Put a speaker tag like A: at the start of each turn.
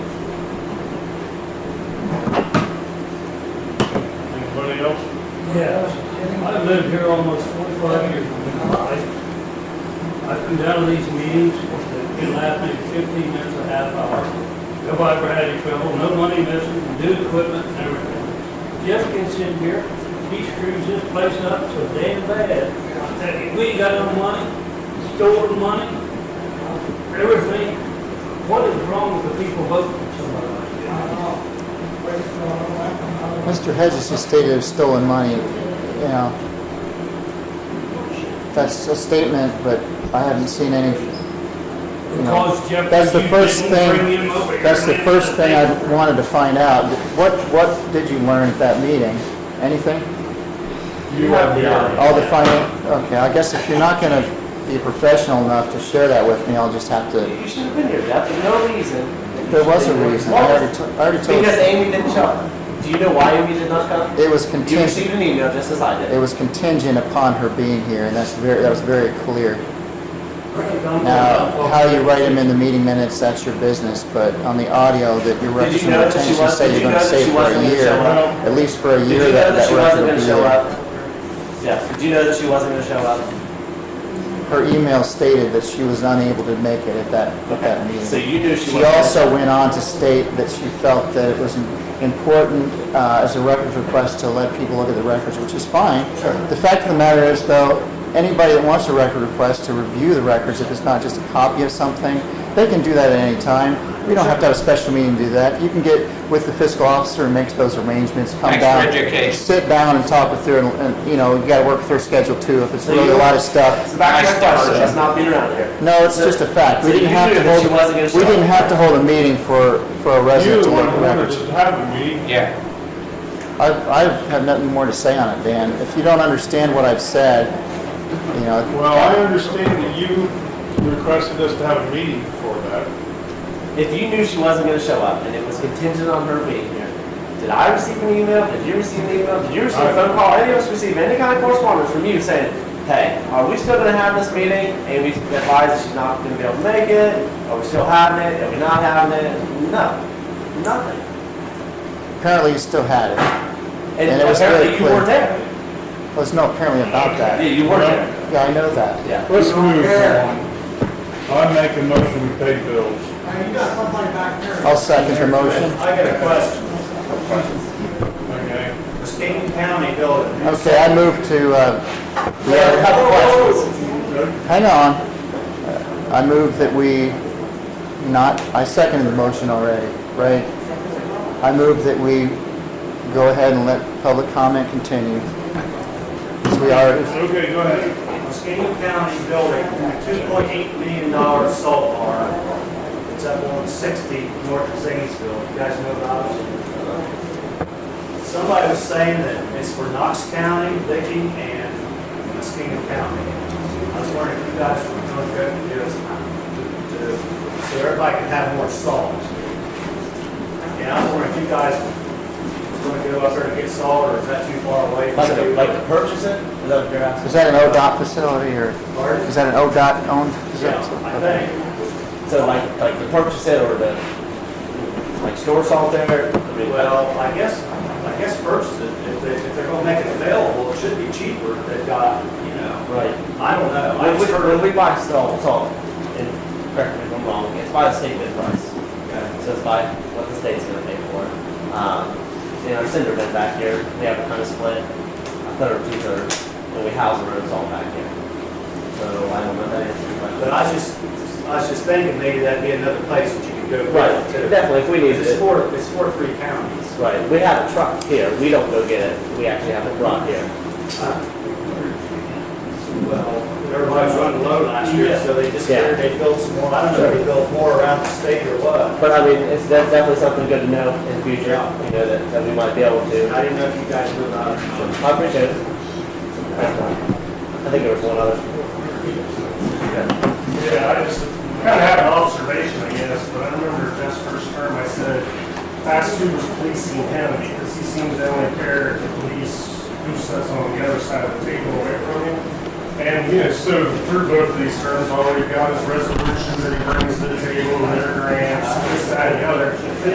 A: Yes, I've lived here almost forty-five years of my life. I've come down to these meetings, it lasts me fifteen minutes, a half hour. Nobody ever had any trouble, no money missing, new equipment, and everything. Jeff gets in here, he screws this place up so damn bad. I tell you, We ain't got no money, stored money, everything. What is wrong with the people voting for somebody like that?
B: Mr. Hedges has stated it's stolen money, you know. That's a statement, but I haven't seen any, you know.
A: Because Jeff,
B: That's the
A: you
B: first
A: didn't bring
B: thing,
A: him over here.
B: that's the first thing I wanted to find out. What, what did you learn at that meeting? Anything?
C: You have the
B: All the finance, okay, I guess if you're not gonna be professional enough to share that with me, I'll just have to,
C: You should have been here, Jeff, there's no reason.
B: there was a reason. I already, to- I already told
C: Because
B: you,
C: Amy didn't come. Do you know why Amy did not come?
B: it was
C: You
B: contingent,
C: received an email just as I
B: it
C: did.
B: was contingent upon her being here, and that's very, that was very clear. Oh, Now, how you write them in the meeting minutes, that's your business, but on the audio that your
C: Did you
B: records of
C: know that she
B: retention
C: was-
B: say
C: did
B: you're
C: you
B: gonna
C: know that
B: save
C: she
B: for a
C: wasn't gonna
B: year,
C: show up?
B: at least for a
C: Did you
B: year,
C: know
B: that,
C: that
B: that
C: she wasn't
B: record will
C: gonna
B: be
C: show
B: there.
C: up? Jeff, did you know that she wasn't gonna show up?
B: Her email stated that she was unable to make it at that, at that
C: So
B: meeting.
C: you knew she
B: She
C: wasn't. gonna-
B: also went on to state that she felt that it was important, uh, as a records request to let people look at the records, which is fine.
C: Sure.
B: The fact of the matter is, though, anybody that wants a record request to review the records, if it's not just a copy of something, they can do that at any time. We don't have to have a special meeting to do that. You can get with the fiscal officer and make those arrangements, come
D: Thanks
B: down.
D: for education.
B: Sit down and talk with her, and- and, you know, you gotta work with her schedule too, if it's
C: So
B: really a
C: you-
B: lot of stuff.
C: So back to your
D: Nice start,
C: question,
D: Jeff.
C: she's not been around here.
B: No, it's just a fact. We
C: So
B: didn't
C: you
B: have
C: knew
B: to
C: that she
B: hold,
C: wasn't gonna show
B: we
C: up.
B: didn't have to hold a meeting for, for a
E: You're
B: resident
E: the
B: to look
E: one
B: at
E: who
B: records.
E: wanted to have a meeting.
D: Yeah,
B: I, I have nothing more to say on it, Dan. If you don't understand what I've said, you know,
E: Well, I understand that you requested us to have a meeting for that.
C: If you knew she wasn't gonna show up and it was contingent on her being here, did I receive an email? Did you receive an email? Did you receive a phone call? Any of us receive any kind of correspondence from you saying, hey, are we still gonna have this meeting? And we advised that she's not gonna be able to make it. Are we still having it? Are we not having it? No, nothing.
B: apparently you still had it.
C: And
B: And it was
C: apparently
B: very
C: you
B: clear.
C: weren't there.
B: There's no apparently about
C: Yeah,
B: that.
C: you weren't there.
B: Yeah, I know that.
C: Yeah.
E: Let's move on. I make a motion to pay bills.
B: I'll second the motion.
F: I got a question.
E: Okay.
F: The Stanton County building.
B: Okay, I move to, uh, we have a couple questions. Hang on. Uh, I move that we not, I seconded the motion already, right? I move that we go ahead and let public comment continue. 'Cause we are,
E: Okay, go ahead.
F: The Stanton County building, two point eight million dollar salt bar. It's up on sixty north of Zanesville. You guys know about it? Somebody was saying that it's for Knox County, Licking, and Muskegon County. I was wondering if you guys were going to go to do this, to- so everybody could have more salt. And I was wondering if you guys were going to go up there to get salt, or is that too far away?
C: Like to, like to purchase it? Is that what you're asking?
B: is that an ODOT facility or
F: Pardon?
B: is that an ODOT owned
F: Yeah,
B: facility?
F: I think,
C: So like, like to purchase it or to, like store salt there? I mean,
F: well, I guess, I guess first, if they, if they're gonna make it available, it should be cheaper if they've got, you know,
C: Right.
F: I don't know. I
C: When we,
F: just heard,
C: when we buy salt, salt, and correct me if I'm wrong, it's by the state bid price. So it's by what the state's gonna pay for. it. Um, you know, cinder bed back here, we have a kind of split, a third, two thirds, and we house our own salt back here. So I don't know if that answers your question.
F: but I was just, I was just thinking maybe that'd be another place that you could go
C: Right,
F: with it too.
C: definitely, if we needed
F: It's
C: it.
F: for, it's for three counties.
C: Right, we have a truck here, we don't go get it, we actually have it brought here.
F: Well, everybody's running low last year, so they just
C: Yeah.
F: figured they built some more, I don't know if they built more around the state or what.
C: But I mean, it's that's definitely something good to know in the future, you know, that, that we might be able to.
F: I didn't know if you guys knew about it.
C: I appreciate it. I think there was one other.
G: Yeah, I just kind of had an observation, I guess, but I remember Jeff's first term, I said, ask who was policing him, because he seems to only care if the police, who sits on the other side of the table away from him. And, you know, so through both of these terms, all we've got is resolutions that he brings to the table, and their grants, this, that, and the other.